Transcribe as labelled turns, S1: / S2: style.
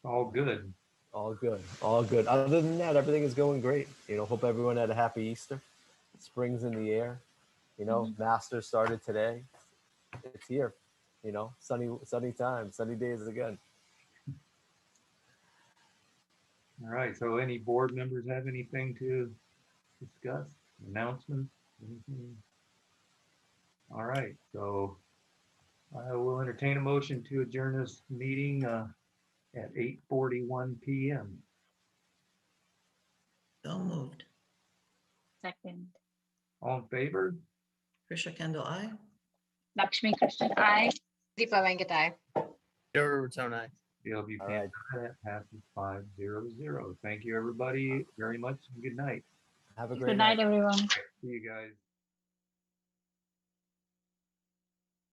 S1: all good.
S2: All good. All good. Other than that, everything is going great. You know, hope everyone had a happy Easter. Spring's in the air. You know, Master started today. It's here. You know, sunny sunny time, sunny days again.
S1: All right. So any board members have anything to discuss? Announcements? Anything? All right. So I will entertain a motion to adjourn this meeting uh, at 8:41 PM.
S3: So moved.
S4: Second.
S1: All in favor?
S3: Trisha Kendall, I.
S4: Lakshmi Krishnan, I.
S5: Deepa Venkatai.
S6: Joe Ruberton, I.
S1: Dale
S2: All
S1: Buchanan,
S2: right.
S1: aye. passes five zero zero. Thank you, everybody, very much. and Good night.
S2: Have a great
S4: Good night, everyone.
S1: See you guys.